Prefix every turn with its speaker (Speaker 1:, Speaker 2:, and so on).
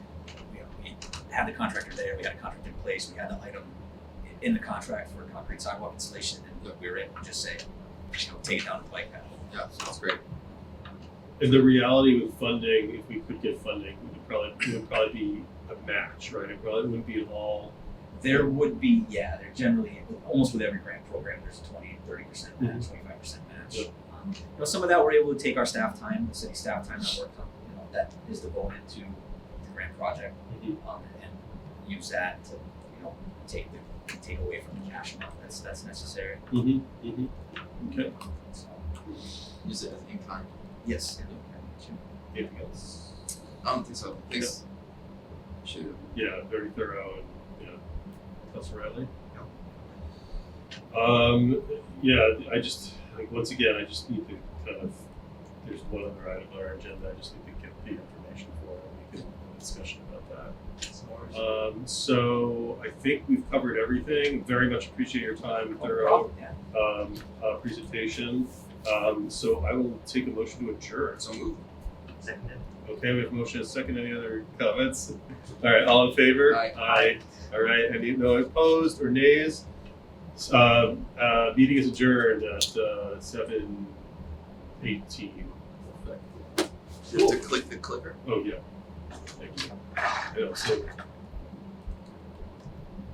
Speaker 1: had the contractor there, we had a contract in place, we had the item in the contract for concrete sidewalk installation, and we were able to just say, you know, take it down to the bike path.
Speaker 2: Yeah, sounds great.
Speaker 3: And the reality with funding, if we could get funding, it would probably, it would probably be a match, right? It probably wouldn't be at all.
Speaker 1: There would be, yeah, there generally, almost with every grant program, there's a 20, 30% match, 25% match.
Speaker 3: Yeah.
Speaker 1: Um, you know, some of that we're able to take our staff time, the city staff time that worked on, you know, that is devoted to the grant project
Speaker 3: Mm-hmm,
Speaker 1: um, and use that to, you know, take the, take away from the cash amount that's, that's necessary. Um,
Speaker 3: Mm-hmm, mm-hmm. Okay.
Speaker 1: So,
Speaker 2: Use it as ink time.
Speaker 1: yes.
Speaker 3: Anything else?
Speaker 2: I don't think so. Thanks. Shoot.
Speaker 3: Yeah, very thorough and, yeah. Council Riley? Um, yeah, I just, like, once again, I just need to kind of, there's one other item on our agenda, I just need to get the information for it, and we can have a discussion about that. Um, so I think we've covered everything. Very much appreciate your time, thorough
Speaker 1: uh, Yeah.
Speaker 3: um, uh, presentation. Um, so I will take a motion to adjourn.
Speaker 2: So move.
Speaker 1: Seconded.
Speaker 3: Okay, we have a motion and a second. Any other comments? All right, all in favor?
Speaker 2: Aye.
Speaker 3: All right, any no opposed or nays? S- Uh, uh, meeting is adjourned at uh, seven eighteen.
Speaker 2: You have to click the clicker.
Speaker 3: Oh yeah. Thank you. Yeah, so